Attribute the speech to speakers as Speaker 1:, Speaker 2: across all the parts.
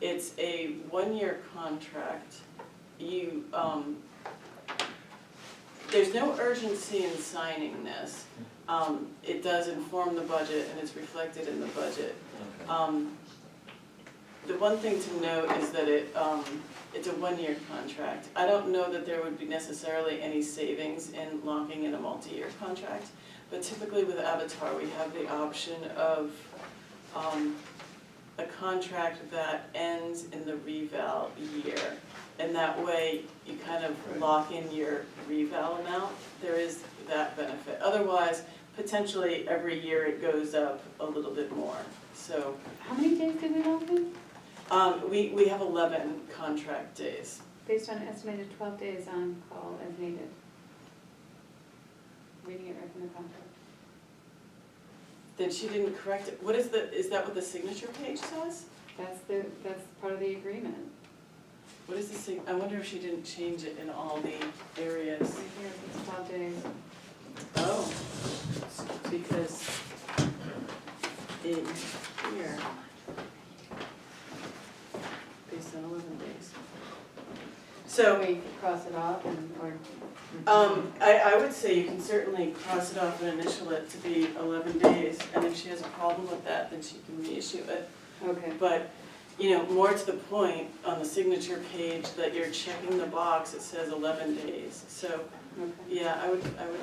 Speaker 1: it's a one-year contract. You, um, there's no urgency in signing this. Um, it does inform the budget and it's reflected in the budget.
Speaker 2: Okay.
Speaker 1: Um, the one thing to note is that it, um, it's a one-year contract. I don't know that there would be necessarily any savings in locking in a multi-year contract, but typically with Avatar, we have the option of, um, a contract that ends in the reval year. And that way, you kind of
Speaker 2: Right.
Speaker 1: lock in your reval amount, there is that benefit. Otherwise, potentially every year it goes up a little bit more, so.
Speaker 3: How many days did we lock in?
Speaker 1: Um, we, we have eleven contract days.
Speaker 3: Based on estimated twelve days on call as needed. Reading it right from the contract.
Speaker 1: Then she didn't correct it. What is the, is that what the signature page says?
Speaker 3: That's the, that's part of the agreement.
Speaker 1: What is the sig, I wonder if she didn't change it in all the areas.
Speaker 3: Right here, it's twelve days.
Speaker 1: Oh. Because in here, based on eleven days. So,
Speaker 3: So we cross it off and, or.
Speaker 1: Um, I, I would say you can certainly cross it off and initial it to be eleven days, and if she has a problem with that, then she can reissue it.
Speaker 3: Okay,
Speaker 1: But, you know, more to the point, on the signature page that you're checking the box, it says eleven days, so,
Speaker 3: okay.
Speaker 1: yeah, I would, I would.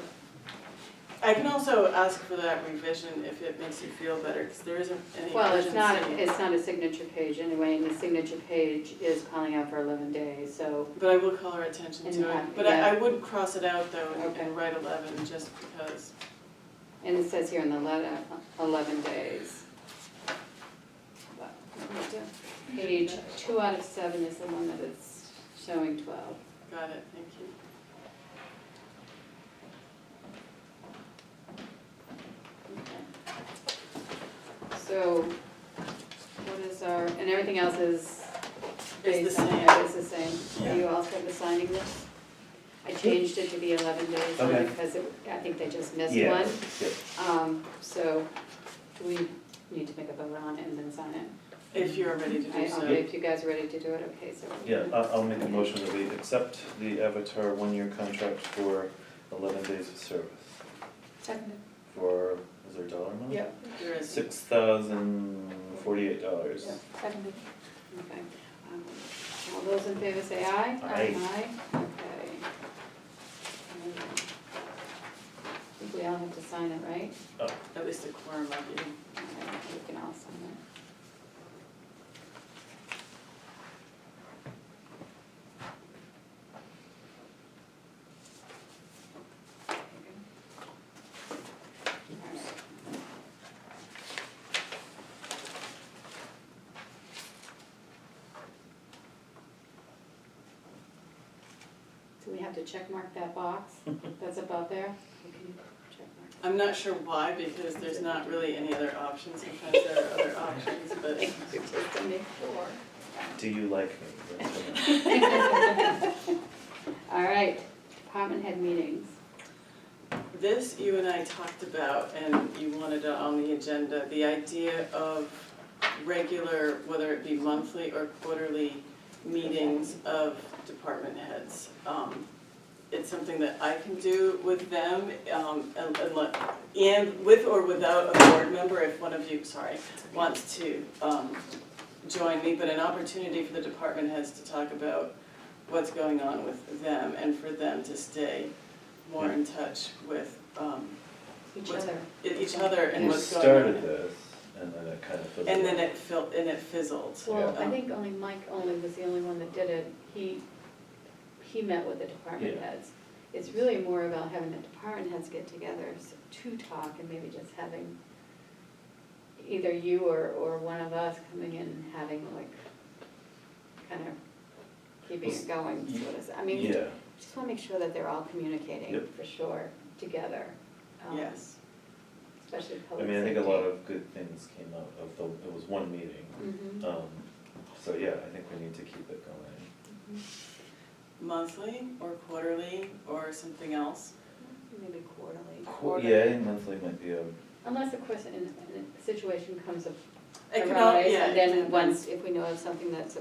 Speaker 1: I can also ask for that revision if it makes you feel better, because there isn't any urgency.
Speaker 3: Well, it's not, it's not a signature page anyway, and the signature page is calling out for eleven days, so,
Speaker 1: But I will call her attention
Speaker 3: And
Speaker 1: to
Speaker 3: have-
Speaker 1: it, but I, I
Speaker 3: yeah.
Speaker 1: would cross it out though and-
Speaker 3: Okay.
Speaker 1: and write eleven, just because,
Speaker 3: and it says here in the letter, eleven days. But, Page two out of seven is the one that it's showing twelve.
Speaker 1: got it, thank you.
Speaker 3: So, what is our, and everything else is
Speaker 1: It's
Speaker 3: based
Speaker 1: the
Speaker 3: on,
Speaker 1: same.
Speaker 3: yeah, it's the same. Are
Speaker 2: Yeah.
Speaker 3: you all set with signing this? I changed it to be eleven days
Speaker 2: Okay.
Speaker 3: because it, I think they just missed
Speaker 2: Yeah,
Speaker 3: one.
Speaker 2: yeah.
Speaker 3: Um, so, do we need to make a vote on it and then sign it?
Speaker 1: If you're ready to
Speaker 3: I,
Speaker 1: do
Speaker 3: I'll-
Speaker 1: so.
Speaker 3: if you guys are ready to do it, okay, so.
Speaker 2: Yeah, I'll, I'll make a motion that we accept the Avatar one-year contract for eleven days of service.
Speaker 3: Second.
Speaker 2: For, is there a dollar amount?
Speaker 3: Yeah.
Speaker 1: There is-
Speaker 2: Six thousand forty-eight dollars.
Speaker 3: Seconded. Okay. Um, All those in favor say aye?
Speaker 2: Aye.
Speaker 3: Aye, okay. Um, I think we all have to sign it, right?
Speaker 1: At least a quorum of you.
Speaker 3: Okay, We can all sign it. All right. Do we have to check mark that box that's above there? Can you check mark?
Speaker 1: I'm not sure why, because there's not really any other options, sometimes there are other options, but
Speaker 3: Just to make sure.
Speaker 2: Do you like me? That's what
Speaker 3: All right, department head meetings.
Speaker 1: this you and I talked about, and you wanted it on the agenda, the idea of regular, whether it be monthly or quarterly, meetings of department heads. Um, It's something that I can do with them, um, and, and let- and with or without a board member, if one of you, sorry, wants to, um, join me, but an opportunity for the department heads to talk about what's going on with them and for them to stay more in touch with, um,
Speaker 3: Each
Speaker 1: What's-
Speaker 3: other.
Speaker 1: e- each other and
Speaker 2: I mean. You
Speaker 1: what's going on.
Speaker 2: started this, and then it kind of fizzled.
Speaker 1: And then
Speaker 2: out.
Speaker 1: it fil- and it fizzled. Um,
Speaker 3: Well,
Speaker 1: Yeah.
Speaker 3: I think only Mike only was the only one that did it. He, he met with the department
Speaker 2: Yeah.
Speaker 3: heads. It's really more about having the department heads get together s- to talk and maybe just having either you or, or one of us coming in and having like, kind of keeping it going,
Speaker 2: Well,
Speaker 3: sort of, I mean,
Speaker 2: Yeah,
Speaker 3: Just want to make sure that they're all communicating,
Speaker 2: Yep.
Speaker 3: for sure, together. um,
Speaker 1: Yes.
Speaker 3: Especially
Speaker 2: I
Speaker 3: public
Speaker 2: mean, I think a lot of good things came out of the, it was one meeting.
Speaker 3: Mhm,
Speaker 2: Um, so yeah, I think we need to keep it going.
Speaker 3: mhm.
Speaker 1: Monthly or quarterly or something else?
Speaker 3: Maybe quarterly.
Speaker 2: Cool, yeah, I think monthly might be a,
Speaker 3: Unless, of course, in, in a situation comes up,
Speaker 1: It
Speaker 3: arise,
Speaker 1: could al- yeah,
Speaker 3: and
Speaker 1: it
Speaker 3: then
Speaker 1: could-
Speaker 3: once, if we know of something that's